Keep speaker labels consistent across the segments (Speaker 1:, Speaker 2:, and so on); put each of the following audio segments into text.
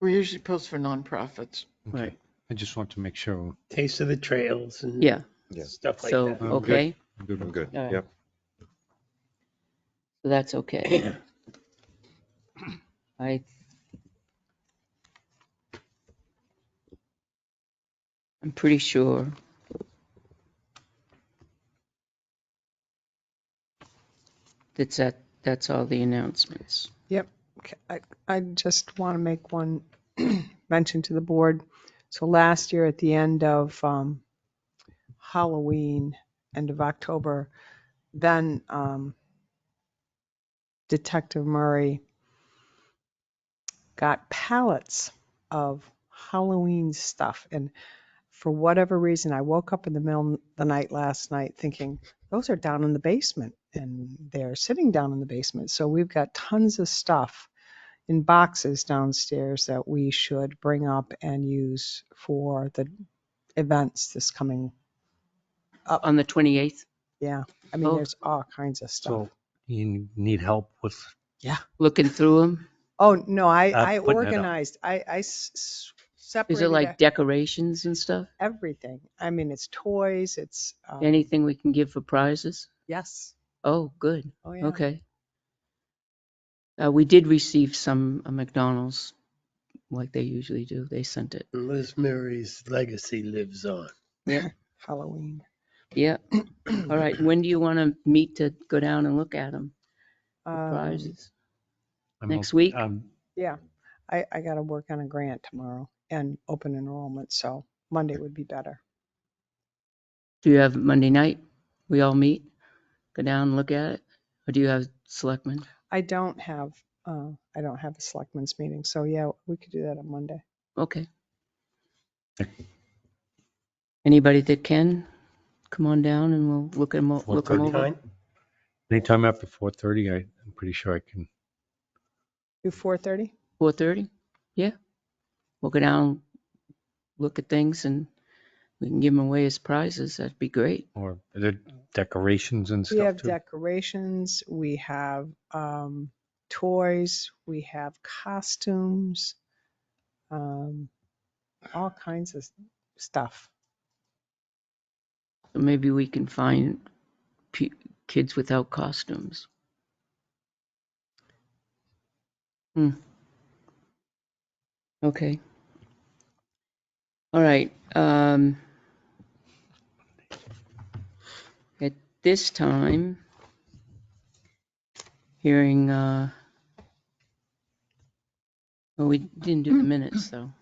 Speaker 1: We usually post for nonprofits.
Speaker 2: Okay.
Speaker 3: Right.
Speaker 2: I just want to make sure
Speaker 3: Taste of the Trails and
Speaker 4: Yeah,
Speaker 5: Yeah.
Speaker 3: stuff like
Speaker 4: so,
Speaker 3: that.
Speaker 2: good.
Speaker 4: okay,
Speaker 2: I'm good
Speaker 5: I'm
Speaker 2: with
Speaker 5: good.
Speaker 4: All right.
Speaker 5: Yep.
Speaker 4: so that's okay. I. I'm pretty sure. That's that, that's all the announcements.
Speaker 6: Okay, I, I just want to make one mention to the board. So last year at the end of um, Halloween, end of October, then um, Detective Murray got pallets of Halloween stuff. And for whatever reason, I woke up in the middle of the night last night thinking, those are down in the basement and they're sitting down in the basement. So we've got tons of stuff in boxes downstairs that we should bring up and use for the events this coming.
Speaker 4: On the 28th,
Speaker 6: Yeah, I mean,
Speaker 4: Oh.
Speaker 6: there's all kinds of stuff.
Speaker 2: So you need help with,
Speaker 4: looking through them,
Speaker 6: Oh, no, I,
Speaker 2: Uh,
Speaker 6: I
Speaker 2: putting it up.
Speaker 6: organized, I, I s- s-
Speaker 4: is
Speaker 6: separated
Speaker 4: it like decorations and stuff?
Speaker 6: everything. I mean, it's toys, it's, um,
Speaker 4: Anything we can give for prizes?
Speaker 6: yes.
Speaker 4: Oh, good,
Speaker 6: Oh, yeah.
Speaker 4: okay. Uh, we did receive some uh, McDonald's, like they usually do, they sent it.
Speaker 3: Liz Murray's legacy lives on.
Speaker 6: Halloween.
Speaker 4: Yeah, all right, when do you want to meet to go down and look at them,
Speaker 6: Um,
Speaker 4: prizes?
Speaker 2: I'm
Speaker 4: Next
Speaker 2: open-
Speaker 4: week?
Speaker 2: I'm
Speaker 6: Yeah, I, I gotta work on a grant tomorrow and open enrollment, so Monday would be better.
Speaker 4: Do you have Monday night, we all meet, go down and look at it, or do you have selectmen?
Speaker 6: I don't have, uh, I don't have a selectmen's meeting, so yeah, we could do that on Monday.
Speaker 4: Okay. Anybody that can, come on down and we'll look at them, look 'em over.
Speaker 3: Time?
Speaker 2: Anytime after four thirty, I'm pretty sure I can.
Speaker 6: Do four thirty?
Speaker 4: Four thirty? Yeah. We'll go down, look at things and we can give them away as prizes. That'd be great.
Speaker 2: Or are there decorations and
Speaker 6: We
Speaker 2: stuff
Speaker 6: have
Speaker 2: too.
Speaker 6: decorations, we have, um, toys, we have costumes, um, all kinds of s- stuff.
Speaker 4: So Maybe we can find pe- kids without costumes. Hmm. Okay. All right, um. At this time, hearing, uh, well, we didn't do the minutes though.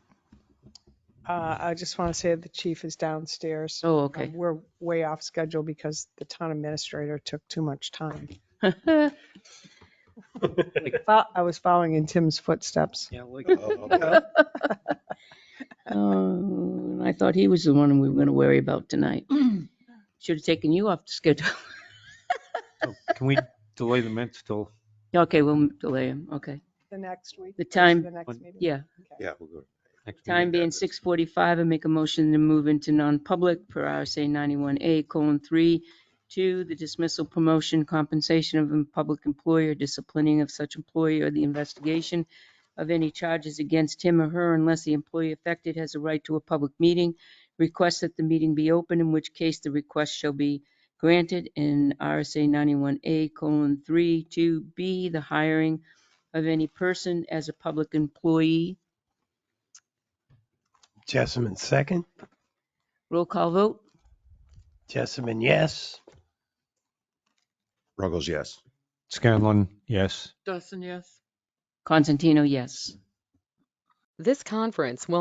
Speaker 6: Uh, I just wanna say the chief is downstairs.
Speaker 4: Oh,
Speaker 6: Uh,
Speaker 4: okay.
Speaker 6: We're way off schedule because the town administrator took too much time. Fo- I was following in Tim's footsteps.
Speaker 2: Yeah, like.
Speaker 4: Oh, I thought he was the one we were going to worry about tonight. Should have taken you off the schedule.
Speaker 2: Oh, Can we delay the minutes till?
Speaker 4: Okay, we'll delay him. Okay.
Speaker 6: The next week?
Speaker 4: The
Speaker 6: or to
Speaker 4: time-
Speaker 6: The next meeting?
Speaker 4: Yeah.
Speaker 5: Yeah, we'll go.
Speaker 2: next
Speaker 4: Time
Speaker 2: meeting?
Speaker 4: being 6:45, I make a motion to move into non-public per RSA 91A colon 3, to the dismissal, promotion, compensation of a public employee, disciplining of such employee, or the investigation of any charges against him or her unless the employee affected has a right to a public meeting. Request that the meeting be open, in which case the request shall be granted in RSA 91A colon 3, to b the hiring of any person as a public employee.
Speaker 3: Jessamine second.
Speaker 4: Roll call vote?
Speaker 3: Jessamine, yes.
Speaker 5: Ruggles, yes.
Speaker 2: Scanlon, yes.
Speaker 1: Dawson, yes?
Speaker 4: Constantino, yes.
Speaker 7: This conference will